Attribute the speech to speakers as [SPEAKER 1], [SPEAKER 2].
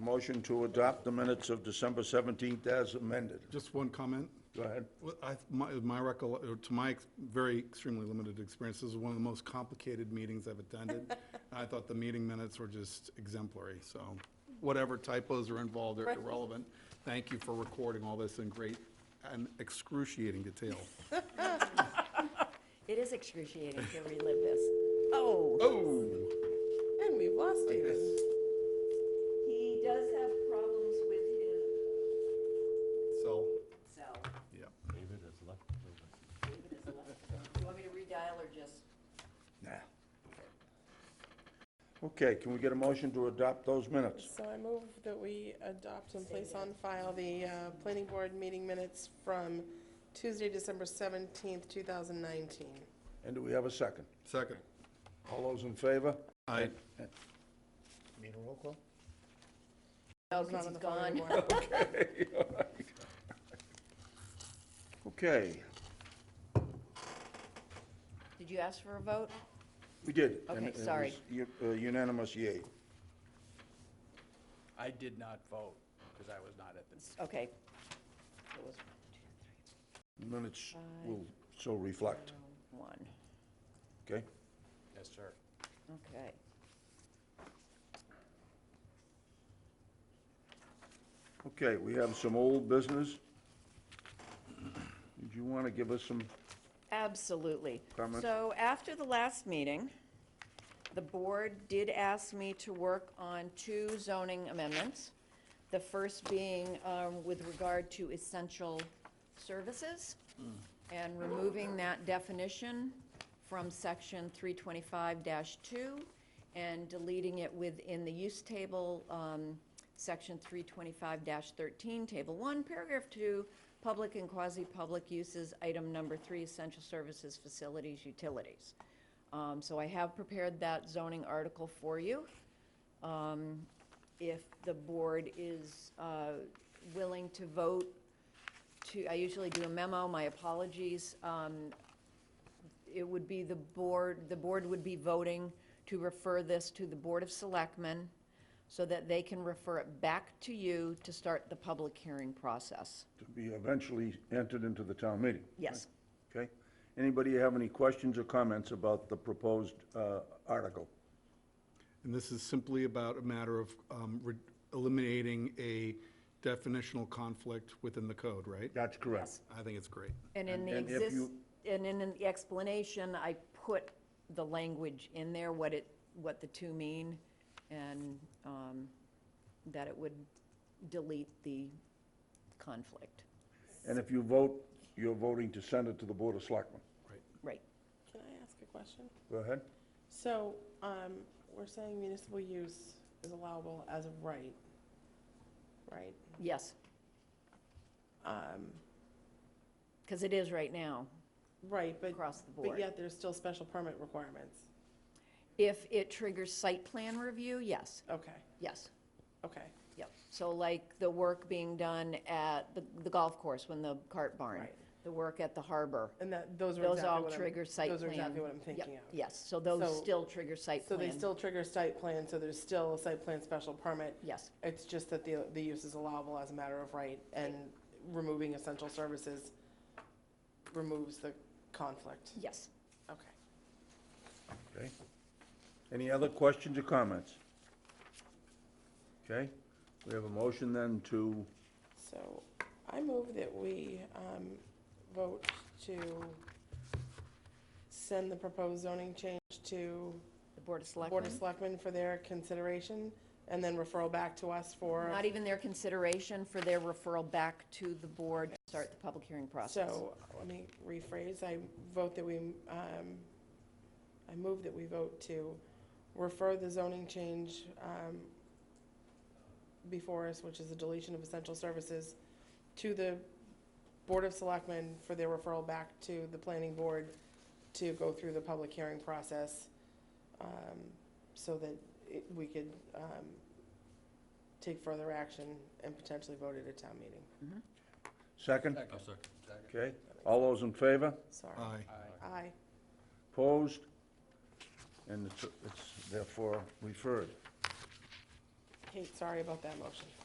[SPEAKER 1] Motion to adopt the minutes of December 17th as amended.
[SPEAKER 2] Just one comment.
[SPEAKER 1] Go ahead.
[SPEAKER 2] Well, I, my, my recollect, or to my ex- very extremely limited experience, this is one of the most complicated meetings I've attended. I thought the meeting minutes were just exemplary, so whatever typos are involved are irrelevant. Thank you for recording all this in great and excruciating detail.
[SPEAKER 3] It is excruciating to relive this. Oh,
[SPEAKER 2] Oh,
[SPEAKER 4] And we've lost David.
[SPEAKER 3] he does have problems with his
[SPEAKER 2] so,
[SPEAKER 3] cell.
[SPEAKER 2] yeah.
[SPEAKER 3] David is left. Do you want me to redial or just?
[SPEAKER 1] Nah. Okay, can we get a motion to adopt those minutes?
[SPEAKER 4] So I move that we adopt and place on file the uh, planning board meeting minutes from Tuesday, December 17th, 2019.
[SPEAKER 1] And do we have a second?
[SPEAKER 2] Second.
[SPEAKER 1] All those in favor?
[SPEAKER 2] I,
[SPEAKER 1] Need a roll call?
[SPEAKER 3] No,
[SPEAKER 4] He's not
[SPEAKER 3] because
[SPEAKER 4] on
[SPEAKER 3] he's
[SPEAKER 4] the phone
[SPEAKER 3] gone.
[SPEAKER 4] anymore.
[SPEAKER 1] Okay,
[SPEAKER 3] Did you ask for a vote?
[SPEAKER 1] we did. and
[SPEAKER 3] Okay,
[SPEAKER 1] it was
[SPEAKER 3] sorry.
[SPEAKER 1] u- uh, Unanimous yea.
[SPEAKER 5] I did not vote because I was not at the meeting.
[SPEAKER 3] Okay. It was
[SPEAKER 1] Minutes will so reflect,
[SPEAKER 3] one.
[SPEAKER 1] okay?
[SPEAKER 5] Yes, sir.
[SPEAKER 3] Okay.
[SPEAKER 1] Okay, we have some old business. Did you want to give us some
[SPEAKER 3] Absolutely.
[SPEAKER 1] Comments?
[SPEAKER 3] So after the last meeting, the board did ask me to work on two zoning amendments. The first being um, with regard to essential services and removing that definition from section 325-2 and deleting it within the use table, um, section 325-13, table 1, paragraph 2, public and quasi-public uses, item number 3, essential services, facilities, utilities. Um, So I have prepared that zoning article for you um, if the board is uh, willing to vote to, I usually do a memo, my apologies. Um, It would be the board, the board would be voting to refer this to the Board of Selectmen so that they can refer it back to you to start the public hearing process.
[SPEAKER 1] to be eventually entered into the town meeting?
[SPEAKER 3] Yes.
[SPEAKER 1] Okay. Anybody have any questions or comments about the proposed uh, article?
[SPEAKER 2] And this is simply about a matter of um, re- eliminating a definitional conflict within the code, right?
[SPEAKER 1] That's correct.
[SPEAKER 2] I think it's great.
[SPEAKER 3] And in the
[SPEAKER 1] And- and if
[SPEAKER 3] exist,
[SPEAKER 1] you-
[SPEAKER 3] and in the explanation, I put the language in there, what it, what the two mean, and um, that it would delete the conflict.
[SPEAKER 1] And if you vote, you're voting to send it to the Board of Selectmen.
[SPEAKER 3] Right.
[SPEAKER 4] Can I ask a question?
[SPEAKER 1] Go ahead.
[SPEAKER 4] So um, we're saying municipal use is allowable as of right, right?
[SPEAKER 3] Yes,
[SPEAKER 4] Um,
[SPEAKER 3] because it is right now.
[SPEAKER 4] Right, but.
[SPEAKER 3] Across the
[SPEAKER 4] But
[SPEAKER 3] board.
[SPEAKER 4] yet there's still special permit requirements.
[SPEAKER 3] If it triggers site plan review, yes,
[SPEAKER 4] Okay,
[SPEAKER 3] yes,
[SPEAKER 4] okay,
[SPEAKER 3] yep. So like the work being done at the the golf course, when the cart barn,
[SPEAKER 4] Right.
[SPEAKER 3] the work at the harbor.
[SPEAKER 4] and that, those are exactly
[SPEAKER 3] Those
[SPEAKER 4] what I'm.
[SPEAKER 3] all trigger site plan.
[SPEAKER 4] Those are exactly what I'm
[SPEAKER 3] Yep,
[SPEAKER 4] thinking of.
[SPEAKER 3] Yes, so those
[SPEAKER 4] So-
[SPEAKER 3] still trigger site
[SPEAKER 4] So
[SPEAKER 3] plan.
[SPEAKER 4] they still trigger site plan, so there's still a site plan special permit.
[SPEAKER 3] Yes.
[SPEAKER 4] It's just that the, the use is allowable as a matter of right, and removing essential services removes the conflict.
[SPEAKER 3] Yes.
[SPEAKER 4] Okay.
[SPEAKER 1] Okay. Any other questions or comments? Okay. We have a motion then to,
[SPEAKER 4] So I move that we um, vote to send the proposed zoning change to
[SPEAKER 3] The Board of
[SPEAKER 4] Board
[SPEAKER 3] Selectmen.
[SPEAKER 4] of Selectmen for their consideration, and then referral back to us for,
[SPEAKER 3] Not even their consideration for their referral back to the board to start the public hearing process.
[SPEAKER 4] so, let me rephrase, I vote that we, um, I move that we vote to refer the zoning change um, before us, which is the deletion of essential services, to the Board of Selectmen for their referral back to the planning board to go through the public hearing process, um, so that it- we could um, take further action and potentially vote at a town meeting.
[SPEAKER 1] second?
[SPEAKER 5] Second.
[SPEAKER 1] Okay. All those in favor?
[SPEAKER 4] Sorry.
[SPEAKER 2] Aye.
[SPEAKER 4] Aye.
[SPEAKER 1] Opposed? And it's, it's therefore referred.
[SPEAKER 4] Kate, sorry about that motion.